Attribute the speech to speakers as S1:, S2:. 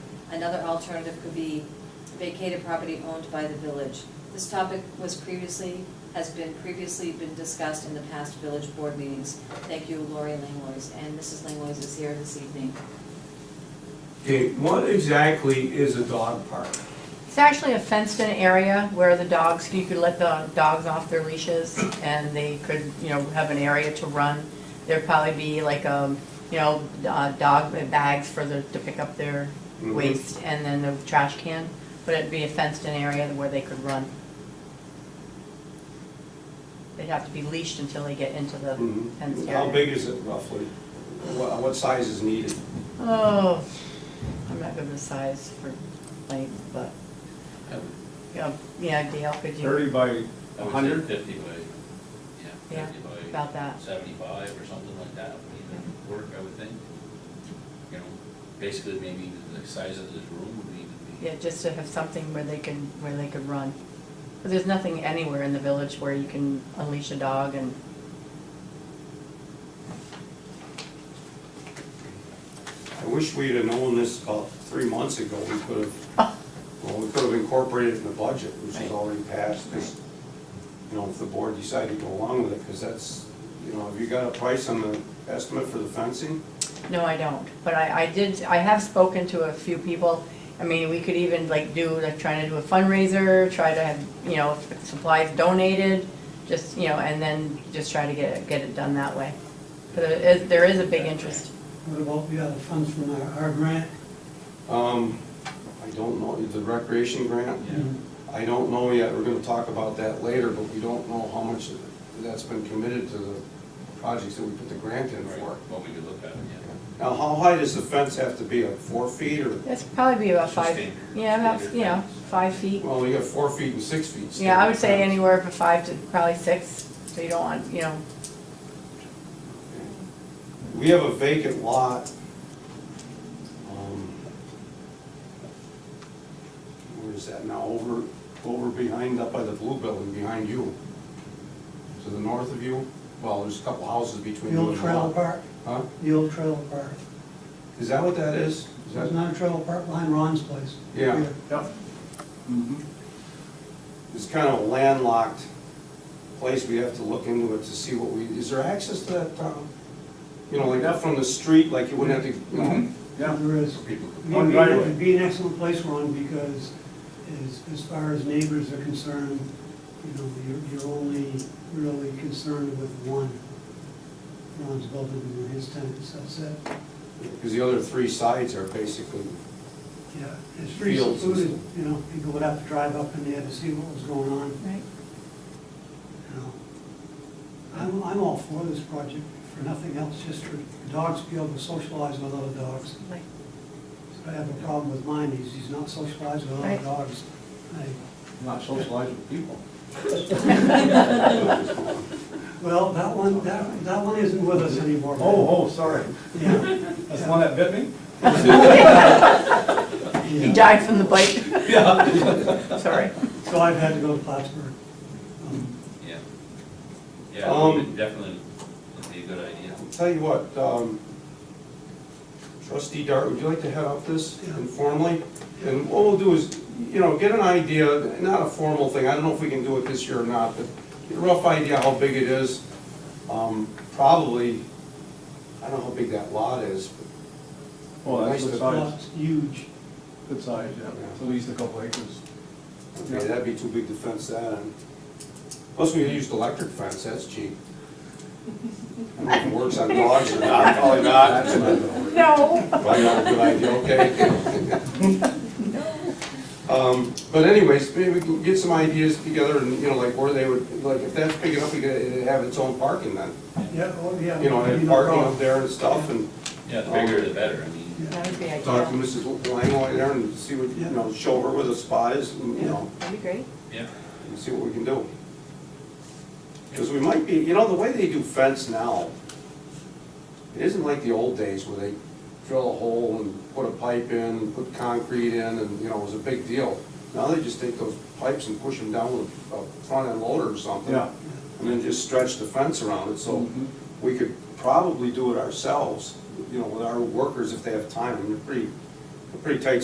S1: Another alternative could be vacated property owned by the village. This topic was previously, has been previously been discussed in the past village board meetings. Thank you, Lori Langlois, and Mrs. Langlois is here this evening.
S2: Okay, what exactly is a dog park?
S3: It's actually a fenced-in area where the dogs, you could let the dogs off their leashes and they could, you know, have an area to run. There'd probably be like, um, you know, uh, dog bags for the, to pick up their
S2: Mhm.
S3: waste and then the trash can. But it'd be a fenced-in area where they could run. They'd have to be leashed until they get into the
S2: Mm-hmm.
S3: fenced area.
S2: How big is it roughly? What, what size is needed?
S3: Oh, I'm not good with size for length, but, yeah, yeah, Dale, could you?
S4: Thirty by
S5: I
S4: a
S5: would say
S4: hundred?
S5: Fifty by, yeah,
S3: Yeah,
S5: fifty by
S3: About that. Mm-hmm.
S5: seventy-five or something like that would even work, I would think. You know, basically maybe the size of this room would even be.
S3: Yeah, just to have something where they can, where they could run. But there's nothing anywhere in the village where you can unleash a dog and,
S2: I wish we'd have known this about three months ago. We could have, well, we could have incorporated it in the budget, which is
S3: Right.
S2: already passed. Just, You know, if the board decided to go along with it, because that's, you know, have you got a price on the estimate for the fencing?
S3: no, I don't. But I, I did, I have spoken to a few people. I mean, we could even like do, like trying to do a fundraiser, try to have, you know, supplies donated, just, you know, and then just try to get it, get it done that way. But there is, there is a big interest.
S6: What about the other funds from our, our grant?
S2: Um, I don't know, the recreation grant?
S5: Yeah.
S2: I don't know yet, we're gonna talk about that later, but we don't know how much that's been committed to the projects that we put the grant in for.
S5: Right, What we could look at, yeah.
S2: Now, how high does the fence have to be, like four feet or,
S3: That's probably be about
S5: So
S3: five,
S5: standard-
S3: yeah, about,
S5: standard
S3: you know,
S5: fence.
S3: five feet.
S2: well, you got four feet and six feet.
S3: Yeah, I would say
S2: standard
S3: anywhere from five to probably six, so you don't want, you know,
S2: fence. We have a vacant lot. um, Where is that now, over, over behind, up by the blue building, behind you? To the north of you, well, there's a couple houses between
S6: The
S2: you
S6: old
S2: and the
S6: trailer
S2: lot.
S6: park,
S2: Huh?
S6: the old trailer park.
S2: Is that what that is? Is that-
S6: There's not a trailer park behind Ron's place.
S2: Yeah.
S4: Yep. Mhm.
S2: It's kind of a landlocked place, we have to look into it to see what we, is there access to that, Tom? You know, like not from the street, like you wouldn't have to, you know,
S6: Mm-hmm.
S4: Yeah.
S6: There is.
S2: people could-
S4: One
S6: It'd be-
S4: driveway.
S6: It'd be an excellent place, Ron, because as, as far as neighbors are concerned, you know, you're, you're only really concerned with one. Ron's building and his tenants, that's it.
S2: because the other three sides are basically,
S6: Yeah, it's pretty
S2: Fields and
S6: secluded,
S2: stuff.
S6: you know, people would have to drive up in there to see what was going on.
S3: right?
S6: you know. I'm, I'm all for this project, for nothing else, just for dogs to be able to socialize with other dogs.
S3: Like,
S6: I have a problem with mine, he's, he's not socialized with other
S3: Right.
S6: dogs. I-
S4: Not socialize with people.
S6: Well, that one, that, that one isn't with us anymore.
S4: Oh, oh, sorry.
S6: Yeah,
S4: That's the one that bit me?
S3: He
S6: yeah.
S3: died from the bite. Sorry.
S6: So I've had to go to Plattsburgh. Um,
S5: Yeah. Yeah, it would
S2: Um,
S5: be- definitely would be a good idea.
S2: I'll tell you what, um, trustee Dart, would you like to head up this
S6: Yeah.
S2: informally? And what we'll do is, you know, get an idea, not a formal thing, I don't know if we can do it this year or not, but get a rough idea how big it is. Um, Probably, I don't know how big that lot is, but
S4: Well, that's good size,
S6: It's huge.
S4: good size, yeah. It's at least a couple acres.
S2: Okay, that'd be too big to fence that in. Plus, we used electric fence, that's cheap. I don't know if it works on dogs or not, probably not. That's not gonna work.
S3: No.
S2: Probably not a good idea, okay? Um, But anyways, maybe we can get some ideas together and, you know, like where they would, like if that's big enough, we could have its own parking then.
S6: Yeah, oh, yeah.
S2: You know, and have
S6: no
S2: parking
S6: problem.
S2: up there and stuff and
S5: Yeah,
S4: um,
S5: the bigger the better, I mean,
S3: That would be
S2: talk to
S3: ideal.
S2: Mrs. Langley there and see what, you know, show her where the spot is and, you know.
S3: That'd be great.
S5: yeah.
S2: and see what we can do. Because we might be, you know, the way they do fence now, it isn't like the old days where they drill a hole and put a pipe in, and put concrete in, and, you know, it was a big deal. Now they just take those pipes and push them down with a front end loader or something.
S4: Yeah.
S2: And then just stretch the fence around it, so
S4: Mhm.
S2: we could probably do it ourselves, you know, with our workers if they have time, and they're pretty, they're pretty tight